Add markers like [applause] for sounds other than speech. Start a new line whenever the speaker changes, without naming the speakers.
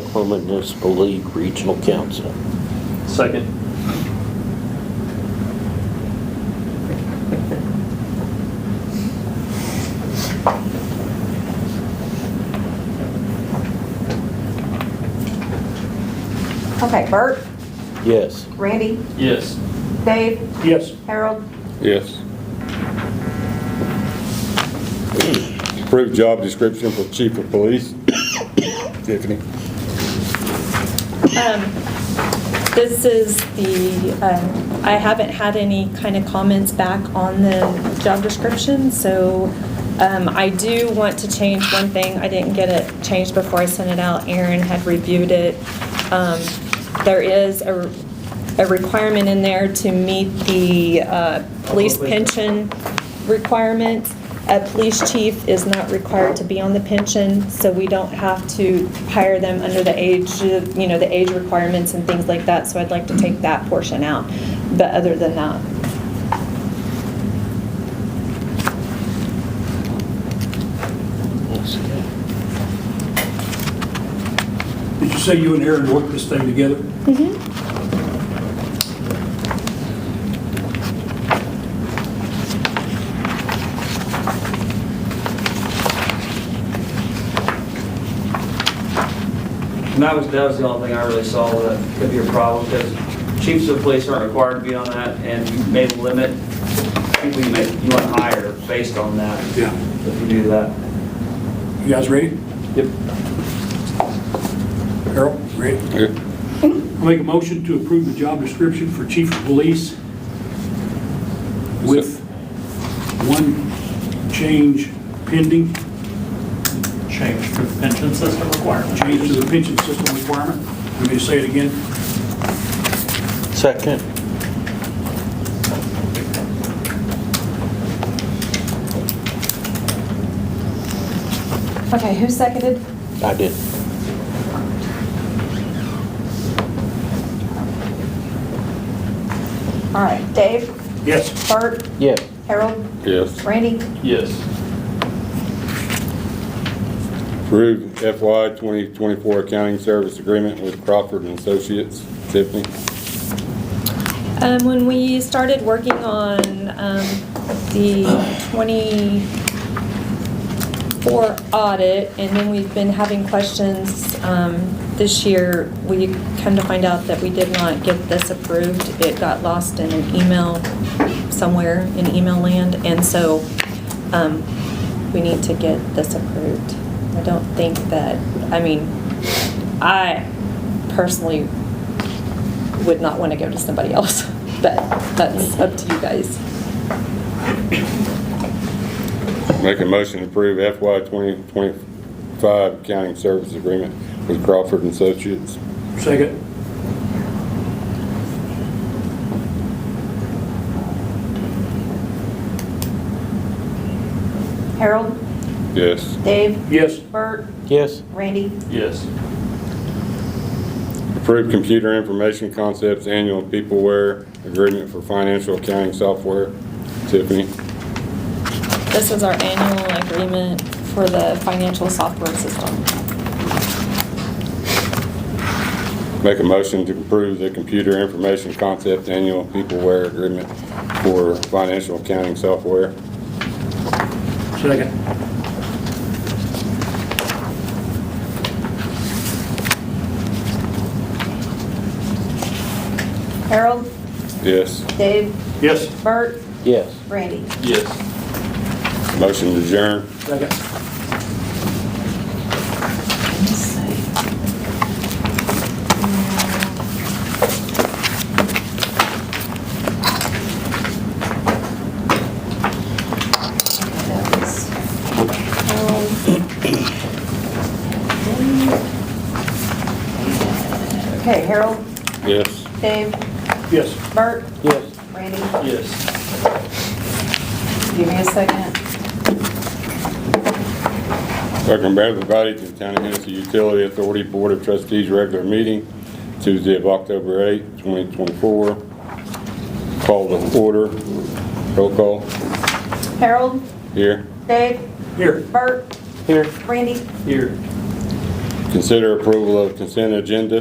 Oklahoma Municipal League Regional Council.
Second.
Okay, Bert,
Yes.
Randy,
Yes.
Dave,
Yes.
Harold,
Yes. Approved job description for chief of police. Tiffany.
This is the, um, I haven't had any kind of comments back on the job description, so um, I do want to change one thing. I didn't get it changed before I sent it out. Aaron had reviewed it. Um, There is a a requirement in there to meet the uh, police pension requirements. A police chief is not required to be on the pension, so we don't have to hire them under the age, of- you know, the age requirements and things like that, so I'd like to take that portion out. But other than that,
Did you say you and Aaron worked this thing together?
And that was, that was the only thing I really saw that could be a problem, because chiefs of police aren't required to be on that, and you may limit people you may, you want to hire based on that,
Yeah.
if you do that.
You guys ready?
Yep.
Harold, ready? I'll make a motion to approve the job description for chief of police with one change pending,
change to the pension system requirement.
change to the pension system requirement. Let me say it again.
Second?
okay, who seconded?
I did.
All right, Dave,
Yes.
Bert,
Yes.
Harold,
Yes.
Randy,
Yes.
Approved FY 2024 accounting service agreement with Crawford and Associates. Tiffany.
Um, When we started working on um, the 24 audit, and then we've been having questions um, this year, we come to find out that we did not get this approved. It got lost in an email somewhere in email land, and so um, we need to get this approved. I don't think that, I mean, I personally would not want to go to somebody else, [laughs] but that's up to you guys.
Make a motion to approve FY 2025 accounting service agreement with Crawford and Associates.
Second.
Harold,
Yes.
Dave,
Yes.
Bert,
Yes.
Randy,
Yes.
Approved computer information concepts annual peopleware agreement for financial accounting software. Tiffany.
This is our annual agreement for the financial software system.
Make a motion to approve the computer information concept annual peopleware agreement for financial accounting software.
Second.
Harold,
Yes.
Dave,
Yes.
Bert,
Yes.
Randy.
Yes.
Motion to adjourn.
Second.
Okay, Harold,
Yes.
Dave,
Yes.
Bert,
Yes.
Randy,
Yes.
give me a second.
Recommend everybody to the County of Hennessy Utility Authority Board of Trustees regular meeting Tuesday of October 8, 2024. Call the order. Roll call.
Harold,
Here.
Dave,
Here.
Bert,
Here.
Randy,
Here.
Consider approval of consent agenda